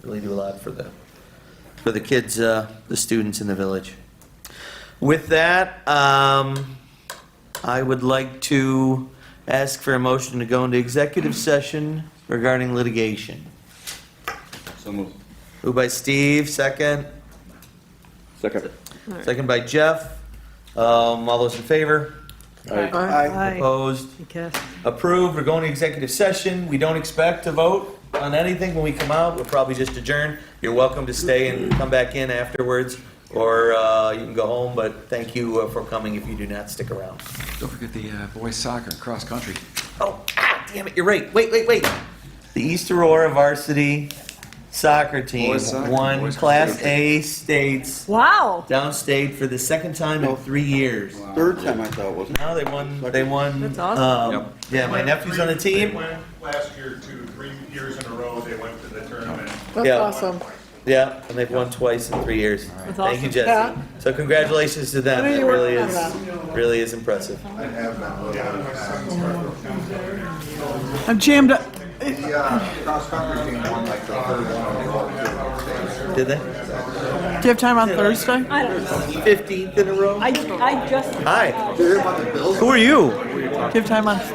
really do a lot for the, for the kids, uh, the students in the village. With that, um, I would like to ask for a motion to go into executive session regarding litigation. So moved. Moved by Steve, second. Second. Second by Jeff. Um, all those in favor? Aye. Opposed? Because Approved. We're going to executive session. We don't expect to vote on anything when we come out. We'll probably just adjourn. You're welcome to stay and come back in afterwards, or, uh, you can go home, but thank you uh, for coming if you do not stick around. Don't forget the uh, boys soccer, cross-country. Oh, ah, damn it, you're right. Wait, wait, wait. The East Aurora varsity soccer team Boys soccer, won boys Class soccer. A states Wow. downstate for the second time in three years. Third time I thought, wasn't No, they won, they won. That's awesome. um, Yeah, my nephew's on the They team. went last year to three years in a row, they went to the tournament. That's Yeah. awesome. Yeah, and they've won twice in three years. That's Thank you, awesome. Jesse. Yeah. So congratulations to them. What are It you really working is, really is impressive. I'm jammed up. The uh, cross-country team won like the third one. They won two of the states. Did they? Do you have time on Thursday? I don't know. Fifteenth in a row? I, I just. Hi, Did you hear about the Bills? who are you? Do you have time on